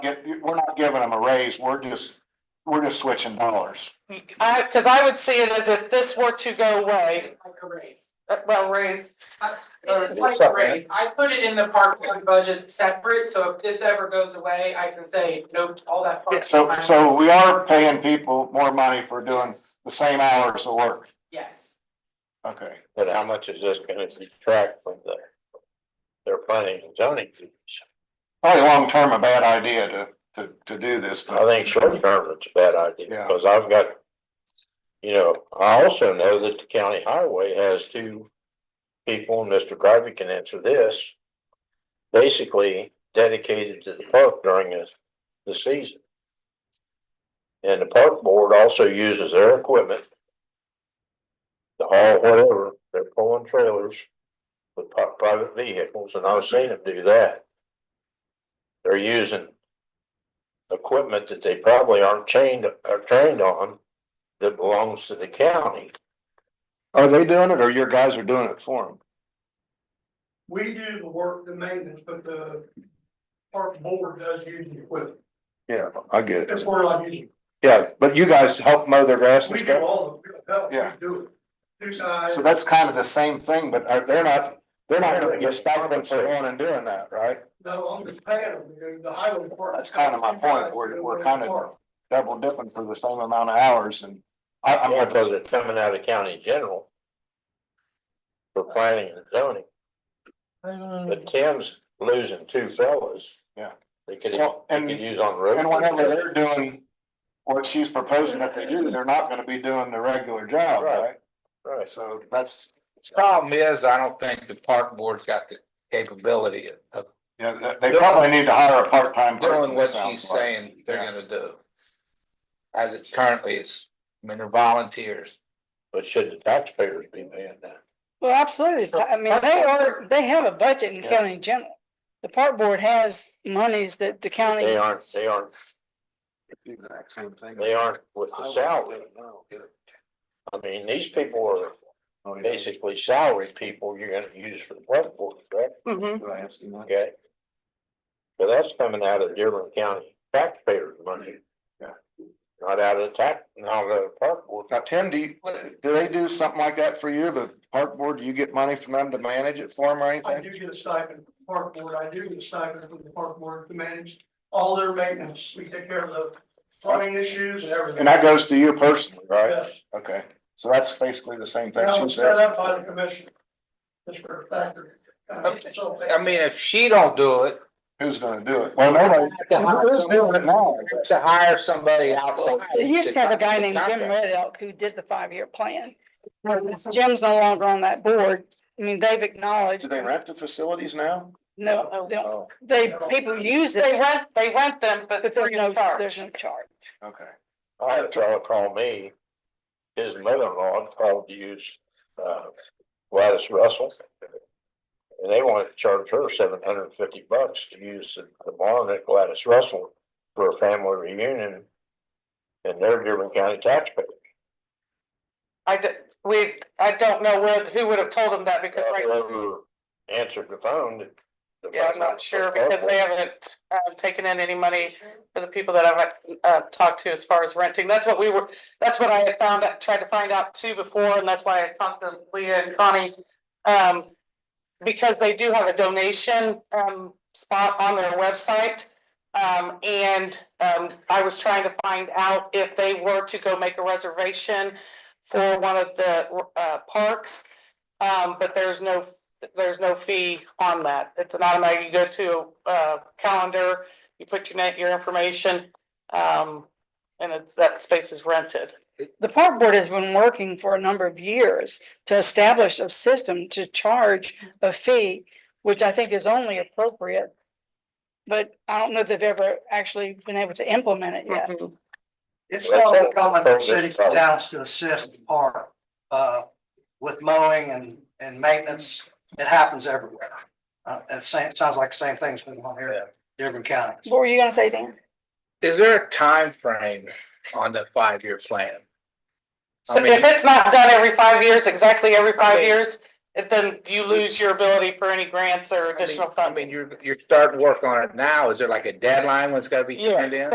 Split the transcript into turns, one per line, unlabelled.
get, we're not giving them a raise, we're just, we're just switching dollars.
I, cause I would see it as if this were to go away,
It's like a raise.
uh, well, raise.
It is like a raise. I put it in the park fund budget separate, so if this ever goes away, I can say, nope, all that. park
So,
fund
so we are
is-
paying people more money for doing the same hours of work.
Yes,
Okay,
But how much is this gonna detract from their, their planning and zoning? fees?
probably long term a bad idea to, to, to do this,
I
but
think short term, it's a bad
Yeah.
idea, because I've got, you know, I also know that the county highway has two people, and Mr. Garvey can answer this, basically dedicated to the park during the, the season. And the park board also uses their equipment to haul whatever, they're pulling trailers with pri- private vehicles, and I've seen them do that. They're using equipment that they probably aren't chained, are trained on that belongs to the county.
are they doing it or your guys are doing it for them?
We do the work, the maintenance, but the park board does use the equipment.
Yeah, I get
That's where I use.
Yeah, but you guys help mow their grass
We do all of it.
Yeah.
We do it. Two sides.
So that's kind of the same thing, but are- they're not, they're not gonna get stipend for going and doing that, right?
No, I'm just paying them. You know, The highway department.
That's kind of my point. We're- we're kind of- Double dipping for the same amount of hours and I, I'm
Yeah,
with you.
because it's coming out of county general. For planning and zoning, but Tim's losing two fellas.
Yeah.
They could,
Well,
they
and-
could use on the road.
And whenever they're doing what she's proposing that they do, they're not gonna be doing the regular job, right?
Right.
So that's,
Problem is, I don't think the park board's got the capability of
yeah, th- they probably need to hire a part-time person.
doing what
it sounds
she's
like.
saying they're
Yeah.
gonna do. As it currently is, I mean, they're volunteers.
But should the taxpayers be paying that?
Well, absolutely. I mean, they are, they have a budget in
Yeah.
county general. The park board has monies that the county.
They aren't, they aren't,
Exact same thing.
they aren't with the salary. I mean, these people are
Oh, yeah.
basically salary people you're gonna use for the park board, correct?
Mhm.
Did I ask you that?
Okay. So that's coming out of Dearborn County taxpayers' money.
Yeah.
Not out of the tax, not out of the park board.
Now, Tim, do you, do they do something like that for you? The park board, do you get money from them to manage it for them or
I
anything?
do get a stipend, from the park board, I do get a stipend from the park board to manage all their maintenance. We take care of the plumbing issues and everything.
And that goes to you personally, right?
Yes.
Okay, so that's basically the same thing.
That
she
was set up by the
says.
commission. Just for a factor. Uh, so-
I mean, if she don't do it.
Who's gonna do it? Well, nobody,
to hire
who's doing it
somebody-
now?
To hire somebody outside.
They used to have a guy
to
named
come
Jim
to the
Red Elk who did the five-year plan. Since Jim's no longer on that board. I mean, they've acknowledged,
Do they rent the facilities now?
no, they don't-
Oh,
they, people use
They
it,
rent, they rent them, but
but there's
free
no,
of
there's
charge.
no charge.
okay.
I had a fellow call me, his mother-in-law had called to use, uh, Gladys Russell. And they wanted to charge her seven hundred and fifty bucks to use the- the barn at Gladys Russell for a family reunion. And they're Dearborn County taxpayers.
I d- we, I don't know where, who would have told them that because right
Whoever answered the phone. the
Yeah, I'm
phone-
not sure because they haven't uh, taken in any money for the people that I've uh, talked to as far as renting. That's what we were, that's what I had found, out- tried to find out too before, and that's why I talked to Leah and Connie. Um, because they do have a donation um, spot on their website. Um, and um, I was trying to find out if they were to go make a reservation for one of the uh, parks. Um, but there's no there's no fee on that. It's an automatic, you go to a calendar, you put your name, your information, um, and it's, that space is rented.
The park board has been working for a number of years to establish a system to charge a fee, which I think is only appropriate. But I don't know that they've ever actually been able to implement it yet.
It's not uncommon for cities and towns to assist the park, uh, with mowing and, and maintenance. It happens everywhere. Uh, it sa- it sounds like the same thing's going on here in different counties.
What were you gonna say, Dan?
Is there a time frame on the five-year plan?
So if it's not done every five years, exactly every
I
five
mean-
years, it- then you lose your ability for any grants or additional
I
funding.
mean, you're, you're starting work on it now. Is there like a deadline when it's gotta be
Yeah,
turned in?